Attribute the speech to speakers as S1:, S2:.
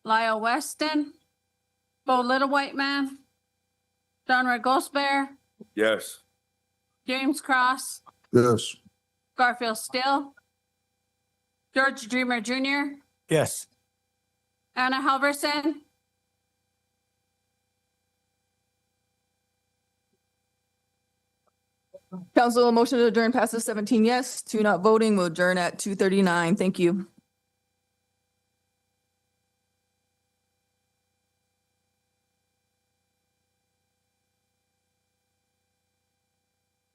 S1: Lyle Weston, Bo Little White Man, John Ray Goldsberry,
S2: Yes.
S1: James Cross,
S3: Yes.
S1: Garfield Still, George Dreamer Jr.,
S4: Yes.
S1: Anna Halverson,
S5: Council, a motion to adjourn passes seventeen yes, two not voting. We'll adjourn at two thirty-nine. Thank you.